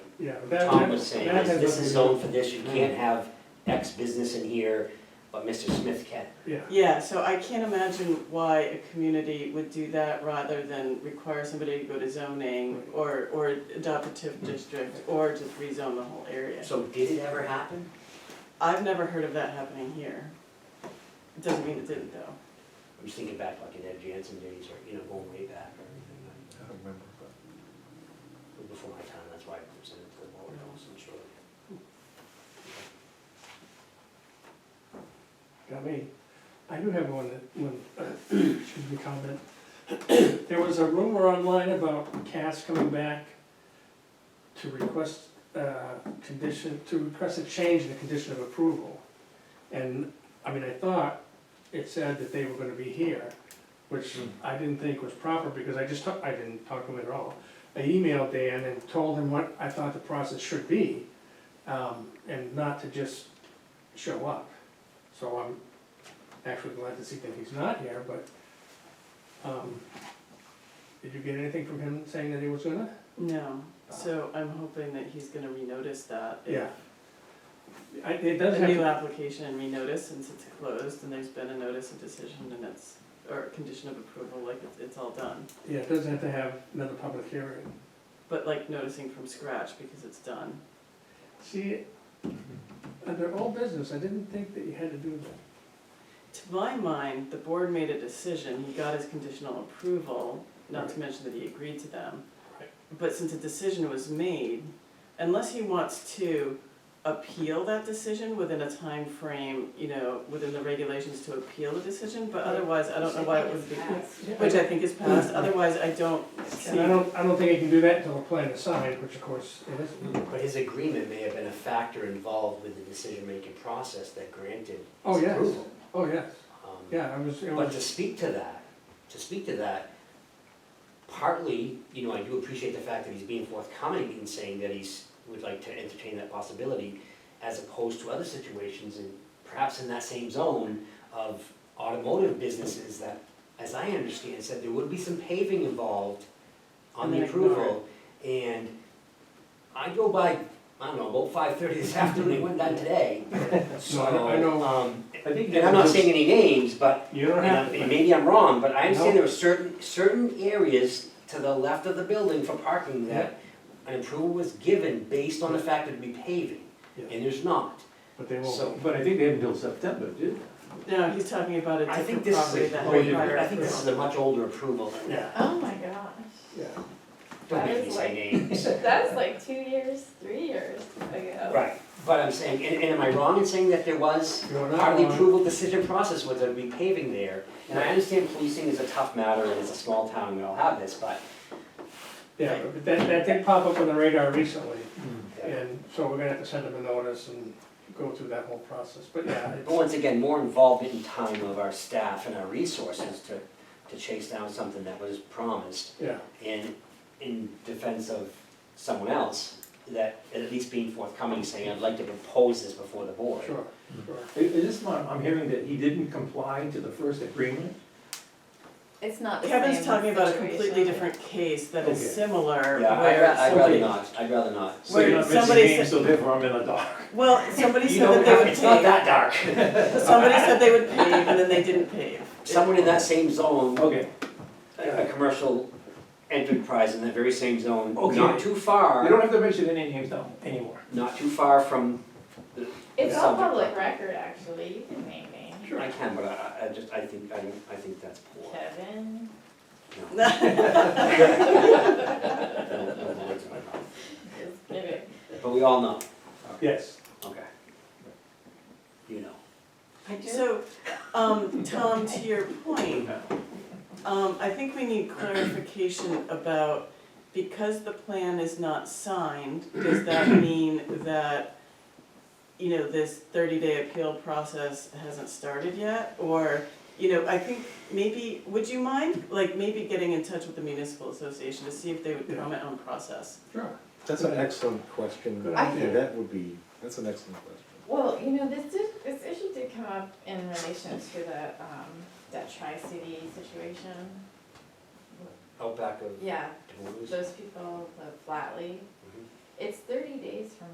Yeah, that, Tom was that, saying, that is has this nothing is zoned to for this, you can't have X business in here, but Mr. Smith can. do, yeah, Yeah, so I can't imagine why a community would do that rather than require somebody to go to zoning or, or adopt a Hmm. TIF district or just rezone the whole area. So did it ever happen? I've never heard of that happening here. It Doesn't mean it didn't though. I'm just thinking back like in Ed Jansen days or, you know, going way back or anything like that. I don't remember, but. It was Before my time, that's why I presented to the board, I wasn't sure. got me. I do have one, that- one, uh, excuse me, comment. There was a rumor online about Cass coming back to request, uh, condition, to request a change in the condition of approval. And, I mean, I thought it said that they were gonna be here, which I didn't think was proper, because I just, talk- I didn't talk to him at all. I emailed Dan and told him what I thought the process should be, um, and not to just show up. So I'm actually glad to see that he's not here, but, um, did you get anything from him saying that he was gonna? No, so I'm hoping that he's gonna renotice that. if Yeah. I, it does A have, new to- application and renotice since it's closed and there's been a notice of decision and it's, or condition of approval, like it's, it's all done. yeah, it does have to have another public hearing. But like noticing from scratch because it's done. See, under all business, I didn't think that you had to do that. To my mind, the board made a decision, he got his conditional approval, not to mention that he agreed to them. Right. But since a decision was made, unless he wants to appeal that decision within a time frame, you know, within the regulations to appeal the decision, but otherwise, I don't know why it was, be- which I think is passed, otherwise I don't see. And I don't, I don't think you can do that until the plan is signed, which of course it isn't. But his agreement may have been a factor involved with the decision-making process that granted Oh, his yes. approval. Oh, yes, Um, yeah, I was, it But to was, speak to that, to speak to that, partly, you know, I do appreciate the fact that he's being forthcoming in saying that he's, would like to entertain that possibility, as opposed to other situations, and perhaps in that same zone of automotive businesses that, as I understand, said there would be some paving involved on And the then ignore approval. And I go by, I don't know, about five thirty this afternoon, I went down today, so, I know- I know. um, I think and I'm not saying any names, but you don't and have I'm- and to. maybe I'm wrong, but I No. understand there were certain, certain areas to the left of the building for parking that an approval was given based on the fact it'd be paving, Yeah, and there's not. But they So- won't. But I think they haven't until September, did No, he's talking about a I think different this is, property a- that oh, had you- prior I think this is approval. a much older approval. Yeah, Oh my gosh. yeah. Don't make me say names. That was like two years, three years ago. Right, but I'm saying, and, and am I wrong in saying that there was You're not part of the wrong. approval decision process was there'd be paving there? And I understand policing is a tough matter, and it's a small town, we all have this, but Yeah, but that, that did pop up on the radar recently, Hmm. uh, and so we're gonna have to send them a notice and go through that whole process, but yeah, But once again, more involvement in time of our staff and our resources to, to chase down something that was promised yeah, in, in defense of someone else, that at least being forthcoming, saying, I'd like to propose this before the board. sure, sure. Is is this not, I'm hearing that he didn't comply to the first agreement? It's not the same Kevin's talking about a completely situation. different case that is Okay. similar, Yeah, I'd, ra- where I'd rather somebody, not, I'd rather not. So you're Where not mentioning somebody names, so therefore I'm in the dark. well, somebody You said don't that they have- would It's not pave, that dark. somebody said they would pave, and then they didn't pave. Someone in that same zone, Okay, a a commercial enterprise in that very same zone, Okay. not too we far, don't have to mention any names now, anymore. not too far from, It's all Subject. public record, actually, you can name me. I can, but I, I- I just, I think, I, don't- I think that's poor. Kevin, No. just kidding. But we all know, Yes, okay. You know. So, um, Tom, to your point, um, I think we need clarification about, because the plan is not signed, does that mean that, you know, this thirty-day appeal process hasn't started yet? Or, you know, I think maybe, would you mind, like, maybe getting in touch with the municipal association to see if they would Yeah. comment on process? sure. That's an excellent question. Good I Yeah, idea. That would be, that's an excellent question. Well, you know, this did, this issue did come up in relation to the, um, that tri-city situation. Outback of Yeah, Taboos. those people, the Flatley. Mhm. Mm-hmm. It's, they're